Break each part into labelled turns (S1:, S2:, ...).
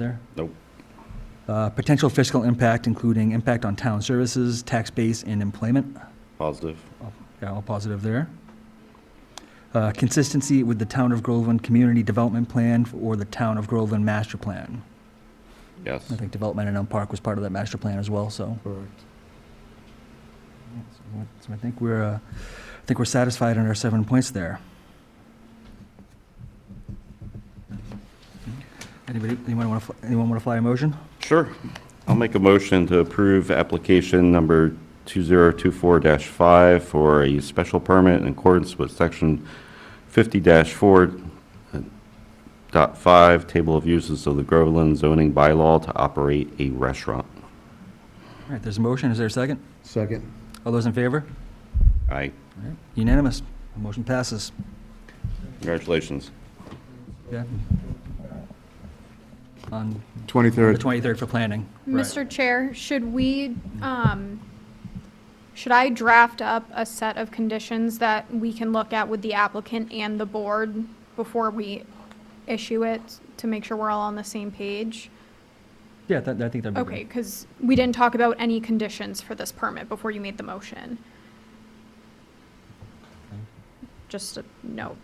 S1: there?
S2: Nope.
S1: Uh, Potential fiscal impact, including impact on town services, tax base, and employment.
S2: Positive.
S1: Yeah, all positive there. Uh, Consistency with the Town of Groveland Community Development Plan or the Town of Groveland Master Plan.
S2: Yes.
S1: I think development in Elm Park was part of that master plan as well, so.
S3: Correct.
S1: So I think we're, uh, I think we're satisfied on our seven points there. Anybody, anyone want to, anyone want to fly a motion?
S2: Sure. I'll make a motion to approve application number 2024-5 for a special permit in accordance with section 50-4 uh, dot 5, table of uses of the Groveland zoning bylaw to operate a restaurant.
S1: All right, there's a motion. Is there a second?
S3: Second.
S1: All those in favor?
S2: Aye.
S1: All right, Unanimous. The Motion passes.
S2: Congratulations.
S1: Yeah. On the
S3: 23rd.
S1: 23rd for planning.
S4: Mr. Chair, should we, um, should I draft up a set of conditions that we can look at with the applicant and the board before we issue it to make sure we're all on the same page?
S1: Yeah, that, I think that'd be
S4: Okay,
S1: great.
S4: because we didn't talk about any conditions for this permit before you made the motion. Just a note.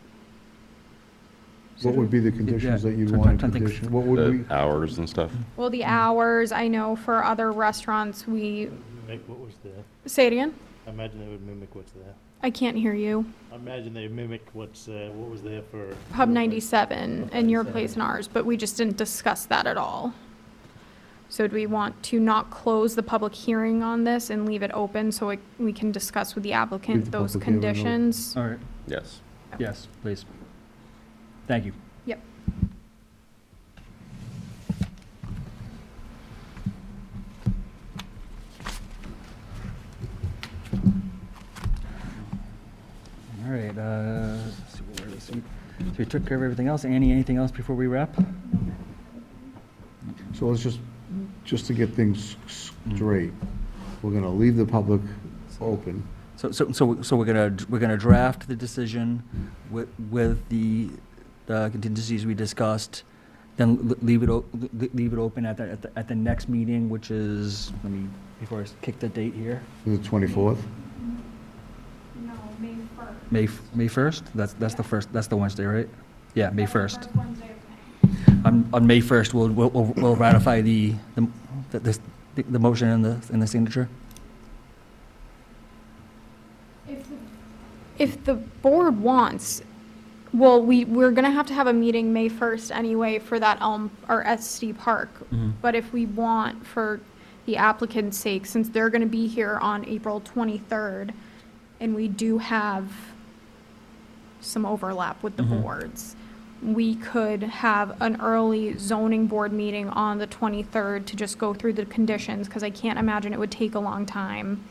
S3: What would be the conditions that you'd want
S1: sometimes
S3: to
S1: I think-
S3: condition? What would
S2: The
S3: we,
S2: hours and stuff.
S4: Well, the hours, I know for other restaurants, we,
S5: Mimic what was there.
S4: say it again?
S5: I imagine they would mimic what's there.
S4: I can't hear you.
S5: I imagine they mimic what's, uh, what was there for.
S4: Pub 97 and your
S5: 97.
S4: place and ours, but we just didn't discuss that at all. So do we want to not close the public hearing on this and leave it open so it- we can discuss with the
S3: Leave
S4: applicant
S3: the
S4: those
S3: public hearing open.
S4: conditions?
S1: All right,
S2: Yes.
S1: yes, please. Thank you.
S4: Yep.
S1: All right, uh, let's see where this- so we took care of everything else. Annie, anything else before we wrap?
S3: so let's just, just to get things s- straight, we're going to leave the public open.
S1: So, so, so, so we're gonna, we're gonna draft the decision with, with the uh, contingencies we discussed, then l- leave it, o- l- l- leave it open at the, at the, at the next meeting, which is, let me, before I s- kick the date here,
S3: The 24th?
S4: No, May 1st.
S1: May, f- May first? That's, that's the first, that's the Wednesday, right? Yeah, May first. On, on May first, we'll, we'll, we'll we'll ratify the, the, the- this- the, the motion and the, and the signature.
S4: If the board wants, well, we, we're gonna have to have a meeting May 1st anyway for that Elm, or SD Park.
S1: Mhm.
S4: But if we want, for the applicant's sake, since they're gonna be here on April 23rd, and we do have some overlap with the
S1: Mhm.
S4: boards, we could have an early zoning board meeting on the 23rd to just go through the conditions, because I can't imagine it would take a long time.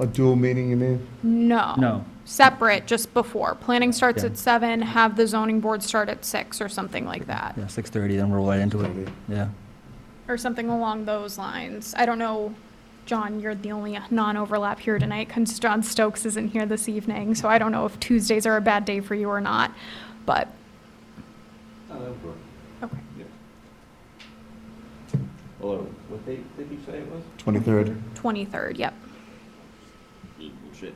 S3: A dual meeting, you mean?
S4: No.
S1: No,
S4: separate just before. Planning starts
S1: Yeah.
S4: at seven, have the zoning board start at six or something like that,
S1: yeah, six thirty, then roll right into it, yeah.
S4: or something along those lines. I don't know, John, you're the only non-overlap here tonight, because John Stokes isn't here this evening, so I don't know if Tuesdays are a bad day for you or not, but. Okay,
S2: Hello, what date did you say it was?
S3: 23rd?
S4: twenty-third, yep.
S2: Shit.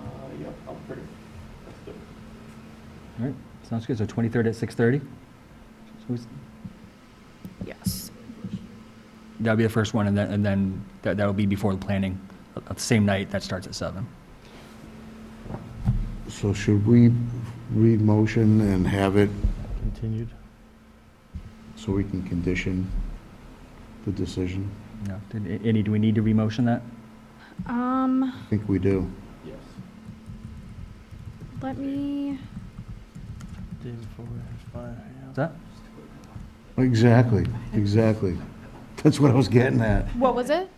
S2: Uh, yep, I'm pretty, that's good.
S1: All right, sounds good, so twenty-third at six thirty?
S4: Yes.
S1: That'll be the first one, and then, and then that, that'll be before the planning, uh, uh, the same night, that starts at seven.
S3: So should we read motion and have it
S5: Continued.
S3: so we can condition the decision?
S1: Yeah, did- A- Andy, do we need to remotion that?
S3: I
S4: Um,
S3: think we do.
S2: Yes.
S4: let me,
S5: Day before expire, yeah.
S1: Is that?
S3: Exactly, exactly. That's what I was getting at.
S4: what was it?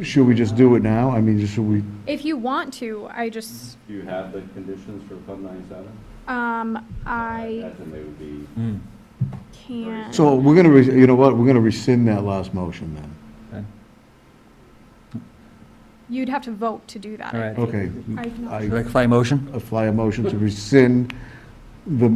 S3: Should we just do it now? I mean, should we,
S4: If you want to, I just,
S2: Do you have the conditions for Pub 97?
S4: um, I
S2: imagine they would be.
S1: Mm,
S4: can't.
S3: so we're gonna, res- you know what, we're gonna rescind that last motion then.
S1: okay.
S4: You'd have to vote to do that. I
S1: All right.
S4: think.
S3: Okay,
S4: I've not-
S3: I-
S1: Should I fly a motion?
S3: I fly a motion to rescind the